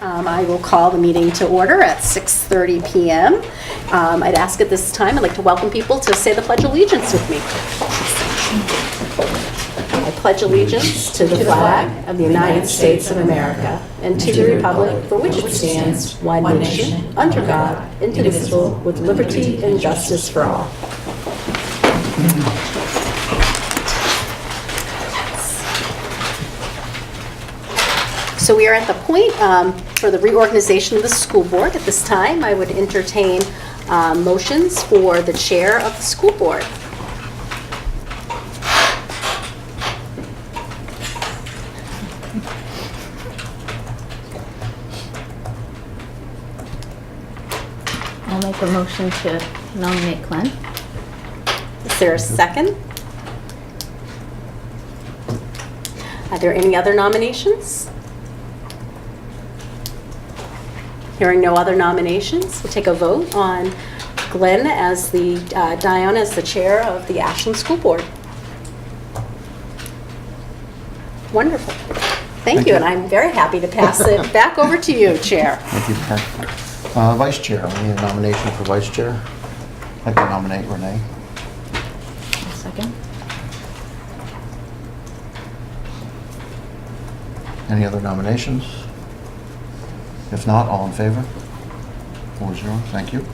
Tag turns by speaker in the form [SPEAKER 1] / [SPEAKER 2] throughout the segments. [SPEAKER 1] Um, I will call the meeting to order at 6:30 PM. Um, I'd ask at this time, I'd like to welcome people to say the Pledge of Allegiance with me. I pledge allegiance to the flag of the United States of America and to the republic for which it stands, one nation, under God, indivisible, with liberty and justice for all. So we are at the point um, for the reorganization of the school board. At this time, I would entertain um, motions for the chair of the school board.
[SPEAKER 2] I'll make a motion to nominate Glenn.
[SPEAKER 1] Is there a second? Are there any other nominations? Hearing no other nominations, we'll take a vote on Glenn as the, uh, Diana as the chair of the Ashland School Board. Wonderful. Thank
[SPEAKER 3] Thank
[SPEAKER 1] you,
[SPEAKER 3] you.
[SPEAKER 1] and I'm very happy to pass it back over to you, Chair.
[SPEAKER 3] Thank you, Pat. Uh, Vice Chair, we need a nomination for Vice Chair. I can nominate Renee.
[SPEAKER 2] A second.
[SPEAKER 3] Any other nominations? If not, all in favor? Four zero, thank you.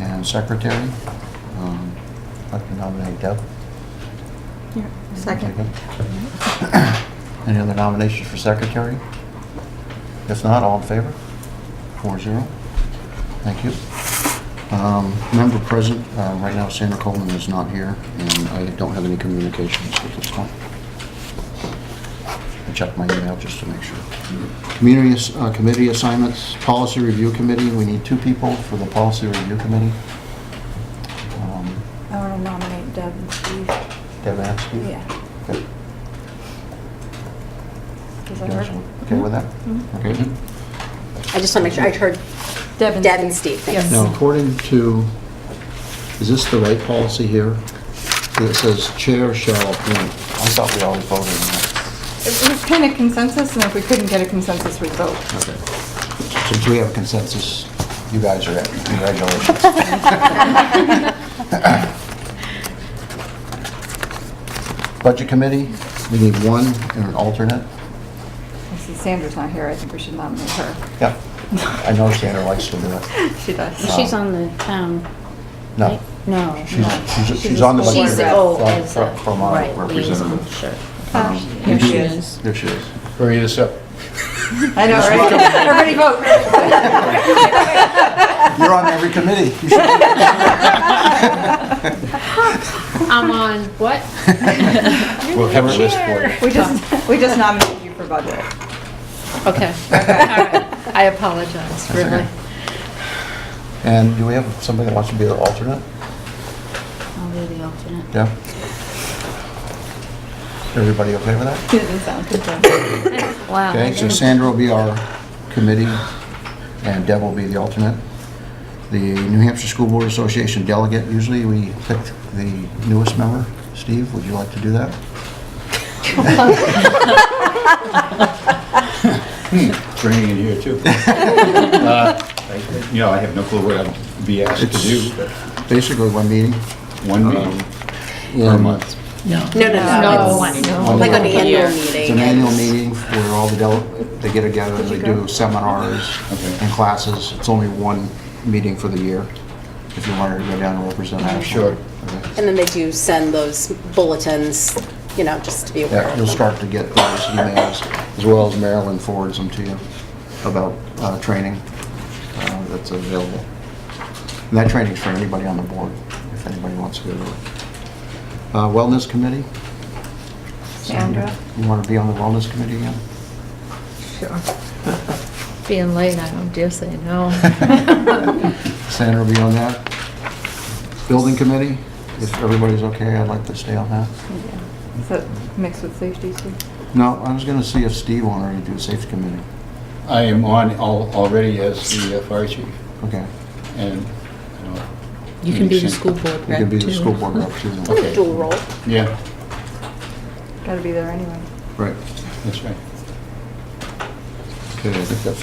[SPEAKER 3] And Secretary, um, I'd like to nominate Deb. Second. Any other nominations for Secretary? If not, all in favor? Four zero. Thank you. Um, Member present, uh, right now Sandra Coleman is not here, and I don't have any communications at this time. I checked my email just to make sure. Community ass- uh, committee assignments, policy review committee, we need two people for the policy review committee. Um,
[SPEAKER 4] I want to nominate Deb and Steve.
[SPEAKER 3] Deb Askew?
[SPEAKER 4] Yeah.
[SPEAKER 3] Okay.
[SPEAKER 4] Does
[SPEAKER 3] You
[SPEAKER 4] that
[SPEAKER 3] guys
[SPEAKER 4] work? Mm-hmm.
[SPEAKER 3] Okay with that? Okay.
[SPEAKER 1] I just want to make sure, I heard Deb and Steve, thanks.
[SPEAKER 4] Yes.
[SPEAKER 3] Now, according to, is this the right policy here? It says chair shall appoint. I thought we always voted on
[SPEAKER 4] It was kind of consensus, and if we couldn't get a consensus, we'd vote.
[SPEAKER 3] that. Okay. Since we have a consensus, you guys are it. Congratulations. Budget committee, we need one and an alternate.
[SPEAKER 4] I see Sandra's not here, I think we should nominate her.
[SPEAKER 3] Yep. I know Sandra likes to do it.
[SPEAKER 4] She does.
[SPEAKER 2] She's on the town.
[SPEAKER 3] No.
[SPEAKER 2] right? No.
[SPEAKER 3] She's-
[SPEAKER 2] no.
[SPEAKER 3] she's- she's on the
[SPEAKER 2] school
[SPEAKER 4] budget
[SPEAKER 2] She's the
[SPEAKER 4] rep.
[SPEAKER 2] O as
[SPEAKER 3] From-
[SPEAKER 2] a.
[SPEAKER 3] from our
[SPEAKER 2] right,
[SPEAKER 3] representative.
[SPEAKER 2] liaison, Sure.
[SPEAKER 4] Oh,
[SPEAKER 2] Here
[SPEAKER 3] you
[SPEAKER 2] she
[SPEAKER 3] do-
[SPEAKER 2] is.
[SPEAKER 3] There she is.
[SPEAKER 5] Hurry this up.
[SPEAKER 4] I know, right? Everybody vote.
[SPEAKER 3] You're on every committee. You should
[SPEAKER 2] I'm on what?
[SPEAKER 5] We'll cover this for you.
[SPEAKER 4] We just, we just nominated you for budget.
[SPEAKER 2] Okay. All right. I apologize,
[SPEAKER 3] okay.
[SPEAKER 2] really.
[SPEAKER 3] And do we have somebody that wants to be the alternate?
[SPEAKER 2] I'll be the alternate.
[SPEAKER 3] Yeah? Everybody okay with that?
[SPEAKER 4] Didn't sound good.
[SPEAKER 2] Wow.
[SPEAKER 3] Okay, so Sandra will be our committee, and Deb will be the alternate. The New Hampshire School Board Association delegate, usually we pick the newest member. Steve, would you like to do that?
[SPEAKER 5] It's raining in here, too. Uh, I- You know, I have no clue what I'd be asked to do, but
[SPEAKER 3] Basically, one meeting.
[SPEAKER 5] one meeting per month.
[SPEAKER 1] No, no, no.
[SPEAKER 3] One
[SPEAKER 1] Like an
[SPEAKER 3] meeting.
[SPEAKER 1] annual meeting.
[SPEAKER 3] It's an annual meeting where all the, del- they get together, they do seminars
[SPEAKER 5] Okay.
[SPEAKER 3] and classes. It's only one meeting for the year, if you wanted to go down and represent Ashland.
[SPEAKER 5] Sure.
[SPEAKER 3] Okay.
[SPEAKER 1] And then they do send those bulletins, you know, just to be aware.
[SPEAKER 3] Yeah,
[SPEAKER 1] of
[SPEAKER 3] you'll
[SPEAKER 1] them.
[SPEAKER 3] start to get those emails, as well as Marilyn forwards them to you about uh, training uh, that's available. And that training's for anybody on the board, if anybody wants to go to it. Uh, Wellness Committee?
[SPEAKER 4] Sandra?
[SPEAKER 3] You want to be on the Wellness Committee again?
[SPEAKER 2] Being late, I don't dare say no.
[SPEAKER 3] Sandra will be on that. Building Committee, if everybody's okay, I'd like to stay on that.
[SPEAKER 4] Is that mixed with safety, too?
[SPEAKER 3] No, I was going to see if Steve wanted to do Safety Committee.
[SPEAKER 5] I am on al- already as the uh, fire chief,
[SPEAKER 3] Okay.
[SPEAKER 5] and, you know...
[SPEAKER 6] You can be the school board
[SPEAKER 3] You
[SPEAKER 6] rep,
[SPEAKER 3] can be the
[SPEAKER 6] too.
[SPEAKER 3] school board rep, too.
[SPEAKER 1] Kind of Dual role.
[SPEAKER 5] Yeah,
[SPEAKER 4] Got to be there anyway.
[SPEAKER 3] Right.
[SPEAKER 5] that's right.
[SPEAKER 3] Okay, I think that's